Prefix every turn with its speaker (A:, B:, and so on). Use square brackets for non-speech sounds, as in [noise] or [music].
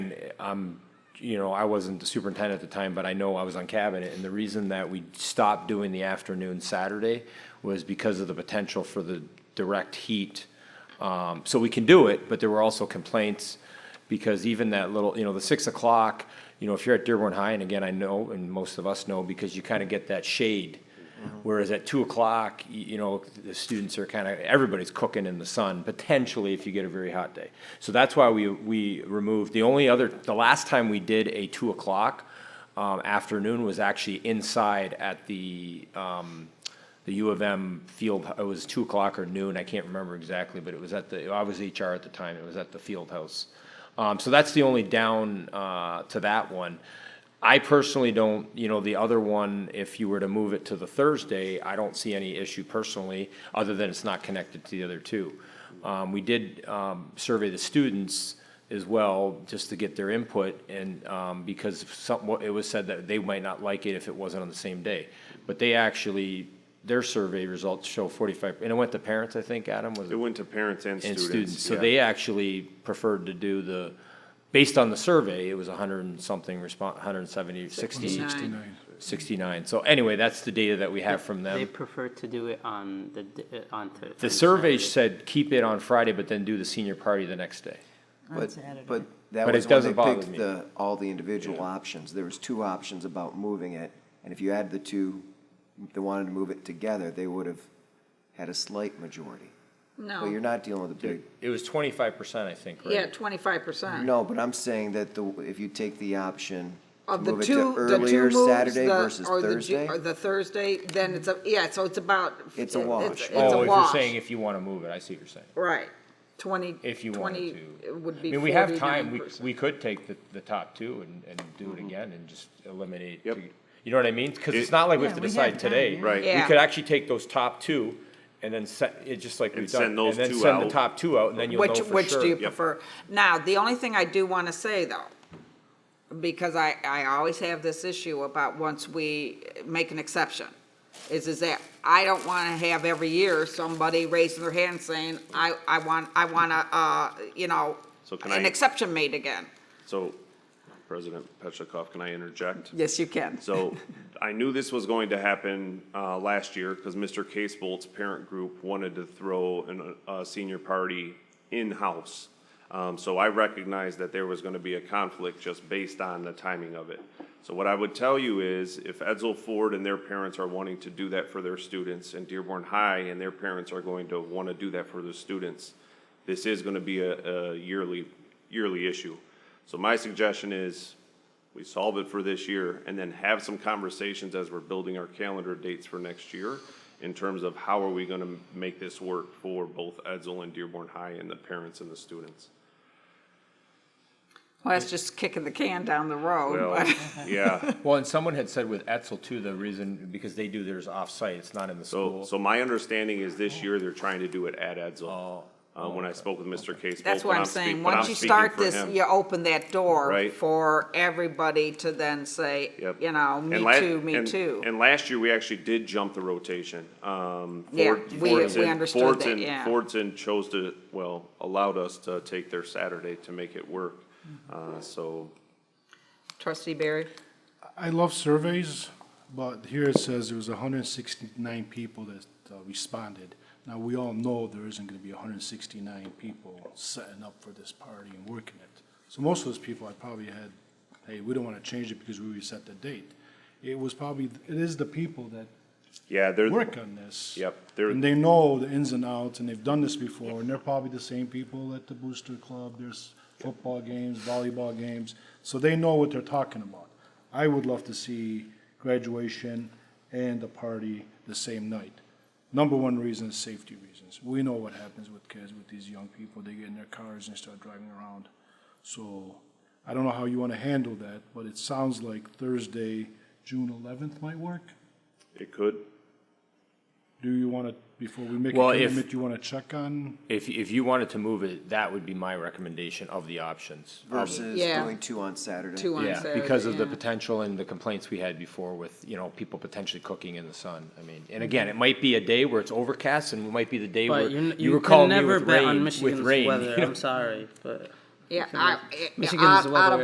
A: um, you know, I wasn't the superintendent at the time, but I know I was on cabinet. And the reason that we stopped doing the afternoon Saturday was because of the potential for the direct heat. Um, so we can do it, but there were also complaints because even that little, you know, the six o'clock, you know, if you're at Dearborn High, and again, I know, and most of us know, because you kind of get that shade. Whereas at two o'clock, y- you know, the students are kind of, everybody's cooking in the sun, potentially if you get a very hot day. So that's why we, we removed, the only other, the last time we did a two o'clock um, afternoon was actually inside at the, um, the U of M field, it was two o'clock or noon, I can't remember exactly, but it was at the, I was HR at the time, it was at the field house. Um, so that's the only down, uh, to that one. I personally don't, you know, the other one, if you were to move it to the Thursday, I don't see any issue personally, other than it's not connected to the other two. Um, we did, um, survey the students as well, just to get their input, and, um, because some, it was said that they might not like it if it wasn't on the same day. But they actually, their survey results show forty-five, and it went to parents, I think, Adam, was it?
B: It went to parents and
A: and
B: students.
A: students, so
B: yeah.
A: they actually preferred to do the, based on the survey, it was a hundred and something respon hundred and seventy, sixty,
C: Sixty-nine.
A: sixty-nine. So anyway, that's the data that we have from
C: They
A: them.
C: prefer to do it on the, d- uh, on. Thur-
A: The
C: on
A: survey
C: Saturday.
A: said, keep it on Friday, but then do the senior party the next day.
D: But, but that
A: But
D: was
A: it
D: when
A: doesn't
D: they
A: bother
D: picked
A: me.
D: the, all the individual options. There was two options about moving it, and if you add the two that wanted to move it together, they would have had a slight majority. But you're
E: No,
D: not dealing with a big,
A: It was twenty-five percent, I think, right?
E: yeah, twenty-five percent.
D: no, but I'm saying that the, if you take the option to
E: Of the
D: move it
E: two,
D: to
E: the two
D: earlier
E: moves,
D: Saturday
E: the-
D: versus
E: or the Ju-
D: Thursday,
E: Or the Thursday, then it's a, yeah, so it's about.
D: It's a
E: it-
D: wash.
E: It's it's
A: Oh,
E: a
A: if you're
E: wash,
A: saying if you want to move it, I see what you're saying.
E: right, twenty,
A: If you
E: twenty
A: wanted to.
E: it would
A: I
E: be
A: mean, we have time,
E: forty-nine
A: we,
E: percent.
A: we could take the, the top two and, and do it again and just eliminate.
B: Mm-hmm. Yep.
A: two. You know what I mean? Because it's
B: It-
A: not like we have
F: Yeah,
A: to
F: we have
A: decide
F: time,
A: today.
F: yeah.
B: Right.
A: We
E: Yeah.
A: could actually take those top two and then set, it just like
B: And
A: we've done.
B: send those
A: And then
B: two
A: send the
B: out.
A: top two out and then you'll know
E: Which,
A: for sure.
E: which do you
B: Yep.
E: prefer? Now, the only thing I do want to say though, because I, I always have this issue about once we make an exception, is, is that I don't want to have every year somebody raising their hand saying, I, I want, I want to, uh, you know,
B: So can
E: an
B: I-
E: exception made again.
B: So, President Petlicoff, can I interject?
E: Yes, you can.
B: So I knew this was going to happen uh, last year because Mr. Casebolt's parent group wanted to throw an, a senior party in-house. Um, So I recognized that there was going to be a conflict just based on the timing of it. So what I would tell you is if Edsel Ford and their parents are wanting to do that for their students and Dearborn High and their parents are going to want to do that for their students, this is going to be a, a yearly, yearly issue. So my suggestion is we solve it for this year, and then have some conversations as we're building our calendar dates for next year in terms of how are we gonna make this work for both Edsel and Dearborn High and the parents and the students.
E: Well, that's just kicking the can down the road,
B: Well, [laughs]
E: but-
B: yeah,
A: Well, and someone had said with Etzel too, the reason, because they do theirs off-site, it's not in the
B: so,
A: school.
B: so my understanding is this year they're trying to do it at Edsel. Um, when I spoke with Mr. Casebolt.
E: [laughs] that's
B: but
E: what I'm
B: speak-
E: saying.
B: but I'm
E: Once you
B: speaking
E: start
B: for
E: this,
B: him.
E: you open that door
B: Right.
E: for everybody to then say,
B: Yep.
E: you know,
B: And
E: me
B: la-
E: too, me
B: and-
E: too.
B: And last year, we actually did jump the rotation. Um,
E: Yeah,
B: Ford-
E: we- we
B: Fordson-
E: understood that,
B: Fordson-
E: yeah.
B: Fordson chose to, well, allowed us to take their Saturday to make it work.
E: Mm-hmm.
B: Uh, So,
E: Trustee Barry?
G: I love surveys, but here it says there was hundred and sixty-nine people that uh, responded. Now, we all know there isn't gonna be hundred and sixty-nine people setting up for this party and working it. So most of those people, I probably had, hey, we don't wanna change it because we reset the date. It was probably, it is the people that
B: yeah, they're,
G: work on this.
B: Yep, they're-
G: And they know the ins and outs, and they've done this before, and they're probably the same people at the booster club, there's football games, volleyball games, so they know what they're talking about. I would love to see graduation and the party the same night. Number one reason is safety reasons. We know what happens with kids, with these young people, they get in their cars and start driving around. So I don't know how you want to handle that, but it sounds like Thursday, June eleventh might work.
B: it could,
G: Do you want to, before we make a
A: Well, if-
G: commitment, you want to check on?
A: If, if you wanted to move it, that would be my recommendation of the options.
D: versus
E: Yeah.
D: doing two on Saturday.
E: Two on
A: Yeah,
E: Saturday.
A: because of the
E: yeah.
A: potential and the complaints we had before with, you know, people potentially cooking in the sun. I mean, and again, it might be a day where it's overcast and it might be the day where
C: But you,
A: you
C: you
A: were
C: can
A: calling me
C: never
A: with
C: bet
A: rain, [laughs]
C: on
A: with
C: Michigan's
A: rain. you
C: weather,
A: know?
C: I'm sorry, but.
E: Yeah, I,
C: Michigan's
E: out out
C: weather
E: of